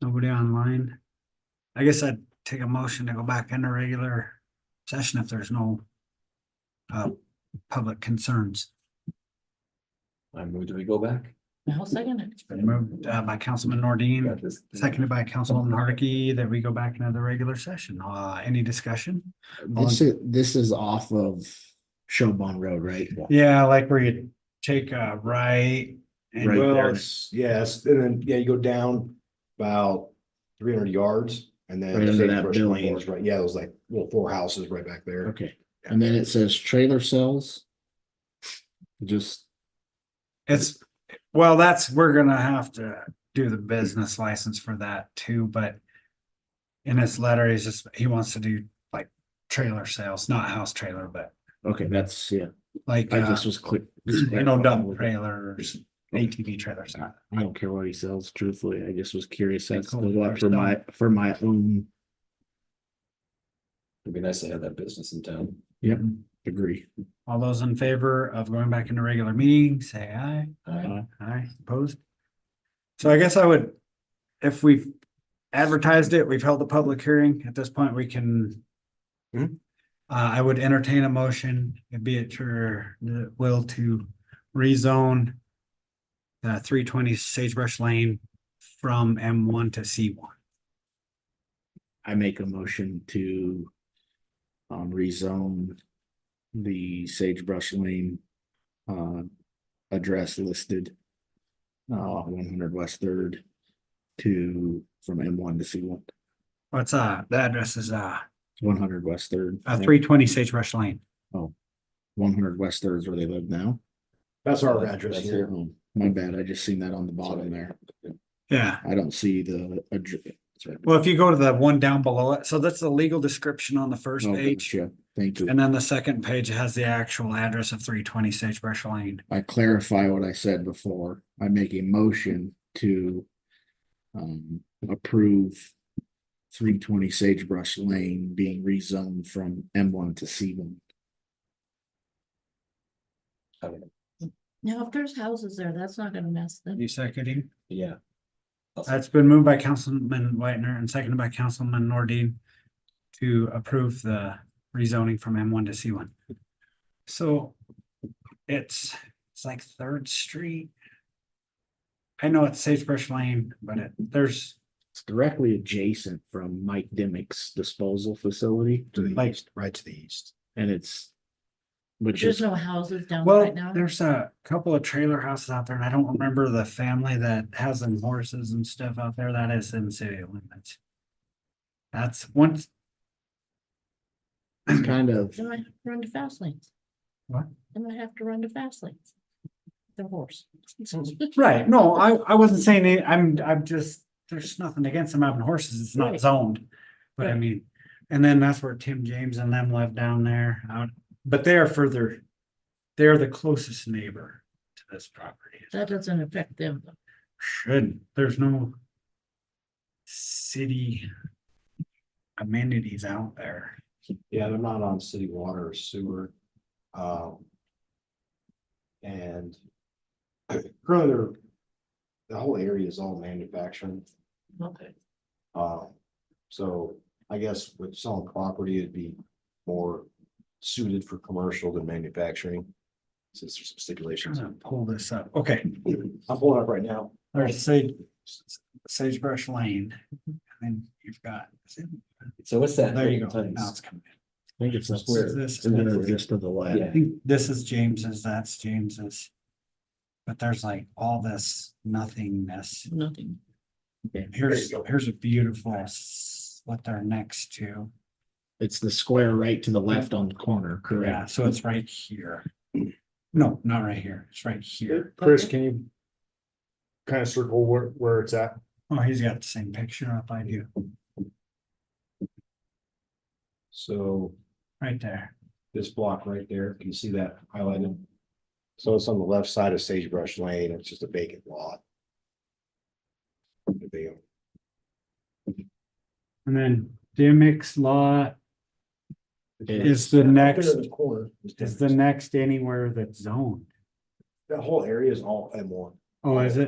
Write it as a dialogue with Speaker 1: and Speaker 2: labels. Speaker 1: Nobody online? I guess I'd take a motion to go back into regular session if there's no uh, public concerns.
Speaker 2: I moved, do we go back?
Speaker 3: I'll second it.
Speaker 1: It's been moved uh, by Councilman Nordine,
Speaker 2: Got this.
Speaker 1: seconded by Councilman Hardiky, that we go back into the regular session. Uh, any discussion?
Speaker 4: This is, this is off of Showbone Road, right?
Speaker 1: Yeah, like where you take a right and
Speaker 4: Right
Speaker 5: Well,
Speaker 4: there.
Speaker 5: it's, yes, and then, yeah, you go down about three hundred yards and then.
Speaker 4: Right under that
Speaker 5: Sagebrush
Speaker 4: building.
Speaker 5: Lane is Right, yeah, those like little four houses right back there.
Speaker 4: Okay, and then it says trailer cells. Just,
Speaker 1: It's, well, that's, we're gonna have to do the business license for that too, but. In his letter, he's just, he wants to do like trailer sales, not house trailer, but
Speaker 4: okay, that's, yeah,
Speaker 1: like,
Speaker 4: I
Speaker 1: uh,
Speaker 4: just was click.
Speaker 1: you know, dump trailers, ATV trailers.
Speaker 4: I I don't care what he sells, truthfully, I just was curious,
Speaker 1: They
Speaker 4: that's
Speaker 1: call
Speaker 4: the
Speaker 1: it
Speaker 4: lot
Speaker 1: our
Speaker 4: for my, for my own,
Speaker 2: It'd be nice to have that business in town.
Speaker 4: yep, agree.
Speaker 1: All those in favor of going back into regular meeting, say aye.
Speaker 2: Aye.
Speaker 1: Aye, opposed? So I guess I would, if we've advertised it, we've held a public hearing, at this point, we can. Uh,
Speaker 5: Mhm.
Speaker 1: I would entertain a motion, it'd be at your uh, will to rezone. Uh, three twenty Sagebrush Lane from M one to C one.
Speaker 4: I make a motion to um, rezone the Sagebrush Lane uh, address listed uh, one hundred West Third to, from M one to C one,
Speaker 1: What's uh, the address is uh,
Speaker 4: one hundred West Third.
Speaker 1: uh, three twenty Sagebrush Lane.
Speaker 4: One hundred West Third is where they live now.
Speaker 5: That's our address
Speaker 2: That's
Speaker 5: here.
Speaker 4: Oh, My bad, I just seen that on the bottom there.
Speaker 1: Yeah,
Speaker 4: I don't see the. addr- it's right-
Speaker 1: well, if you go to the one down below it, so that's the legal description on the first
Speaker 4: Oh,
Speaker 1: page.
Speaker 4: gotcha. Thank you.
Speaker 1: And then the second page has the actual address of three twenty Sagebrush Lane.
Speaker 4: I clarify what I said before. I make a motion to um, approve three twenty Sagebrush Lane being rezoned from M one to C one.
Speaker 2: I don't know.
Speaker 3: Now, if there's houses there, that's not gonna mess them.
Speaker 1: You seconding?
Speaker 2: Yeah. I'll
Speaker 1: That's been moved by Councilman Whitener and seconded by Councilman Nordine to approve the rezoning from M one to C one. So it's, it's like Third Street. I know it's Sagebrush Lane, but it, there's
Speaker 4: It's directly adjacent from Mike Dimick's disposal facility
Speaker 5: To the
Speaker 1: Like-
Speaker 5: east, right to the east.
Speaker 4: and it's which
Speaker 3: There's
Speaker 4: is,
Speaker 3: no houses down
Speaker 1: Well,
Speaker 3: right now.
Speaker 1: there's a couple of trailer houses out there and I don't remember the family that has them horses and stuff out there. That is in city limits. That's once,
Speaker 4: it's kind of,
Speaker 3: They might have to run to fast lanes.
Speaker 1: What?
Speaker 3: They might have to run to fast lanes. The horse.
Speaker 1: right, no, I, I wasn't saying, any- I'm, I'm just, there's nothing against them having horses. It's not
Speaker 3: Right.
Speaker 1: zoned. But I
Speaker 3: Right.
Speaker 1: mean, and then that's where Tim James and them live down there, out, but they are further. They're the closest neighbor to this property.
Speaker 3: That doesn't affect them.
Speaker 1: Shouldn't, there's no city amenities out there.
Speaker 5: Yeah, they're not on city water or sewer. Um. And. Currently, they're- the whole area is all manufacturing.
Speaker 3: Okay.
Speaker 5: Uh, so I guess with selling property, it'd be more suited for commercial than manufacturing. Since there's some
Speaker 1: Trying
Speaker 5: stipulations.
Speaker 1: to pull this up, okay,
Speaker 5: I'm pulling up right now.
Speaker 1: there's Sage, Sagebrush Lane, and then you've got,
Speaker 2: So what's that?
Speaker 1: there you go,
Speaker 2: Tons.
Speaker 1: now it's coming.
Speaker 4: I think it's
Speaker 1: This
Speaker 4: upstairs.
Speaker 1: is this,
Speaker 4: And then it's just to the left.
Speaker 1: I think this is James's, that's James's. But there's like all this nothingness,
Speaker 3: Nothing.
Speaker 1: here's, here's a beautiful, s- what they're next to,
Speaker 4: It's the square right to the left on the corner,
Speaker 1: yeah,
Speaker 4: correct?
Speaker 1: so it's right here. No, not right here, it's right here.
Speaker 3: Chris,
Speaker 5: can you? Kind of circle where, where it's at?
Speaker 1: Oh, he's got the same picture up I do,
Speaker 5: So
Speaker 1: right there.
Speaker 5: this block right there, can you see that highlighted? So it's on the left side of Sagebrush Lane. It's just a vacant lot. That They own.
Speaker 1: And then Dimick's Lot is the
Speaker 5: Up there
Speaker 1: next,
Speaker 5: in the corner.
Speaker 1: is the next anywhere that's zoned.
Speaker 5: That whole area is all M one.
Speaker 1: Oh, is it?